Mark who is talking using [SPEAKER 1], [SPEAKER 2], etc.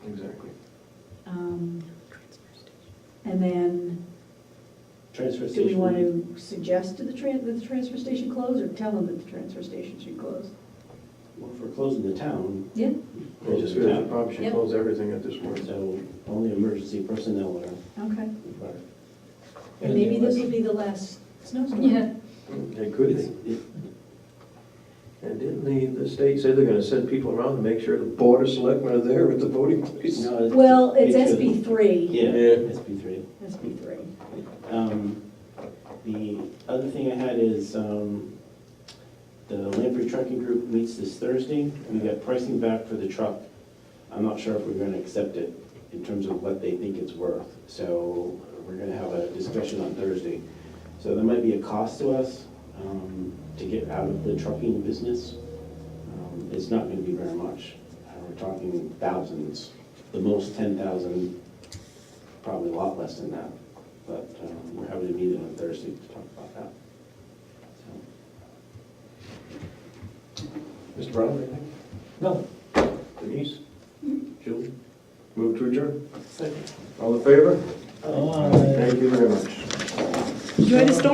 [SPEAKER 1] Um,
[SPEAKER 2] transfer
[SPEAKER 1] Do
[SPEAKER 2] station.
[SPEAKER 1] we want to suggest to the tran, that the transfer station close, or tell them that the transfer station should close?
[SPEAKER 2] Well, if we're closing the town,
[SPEAKER 1] Yeah.
[SPEAKER 3] I just
[SPEAKER 2] close the
[SPEAKER 3] feel you
[SPEAKER 2] town.
[SPEAKER 3] probably should
[SPEAKER 1] Yep.
[SPEAKER 3] close everything at this point.
[SPEAKER 2] So only emergency personnel are
[SPEAKER 1] Okay.
[SPEAKER 2] required.
[SPEAKER 1] And maybe this will be the last snowstorm.
[SPEAKER 4] Yeah.
[SPEAKER 3] It could be.
[SPEAKER 2] It's- it-
[SPEAKER 3] And didn't the, the state say they're gonna send people around to make sure the board of selectmen are there at the voting place?
[SPEAKER 2] no, it-
[SPEAKER 1] Well, it's
[SPEAKER 2] it should-
[SPEAKER 1] SB three,
[SPEAKER 2] Yeah,
[SPEAKER 3] Yeah.
[SPEAKER 2] SB three.
[SPEAKER 1] SB three.
[SPEAKER 2] Um, The other thing I had is um, the Lamprey Trucking Group meets this Thursday. We got pricing back for the truck. I'm not sure if we're going to accept it in terms of what they think it's worth. So we're going to have a discussion on Thursday. So there might be a cost to us um, to get out of the trucking business. Um, It's not going to be very much. Uh, We're talking thousands, the most 10,000, probably a lot less than that. But um, we're having a meeting on Thursday to talk about that. So,
[SPEAKER 3] Mr. Brown, anything?
[SPEAKER 2] No.
[SPEAKER 3] Denise? Julie? Move to adjourn.
[SPEAKER 2] Second.
[SPEAKER 3] All in favor? Thank you very much.
[SPEAKER 1] Enjoy the storm.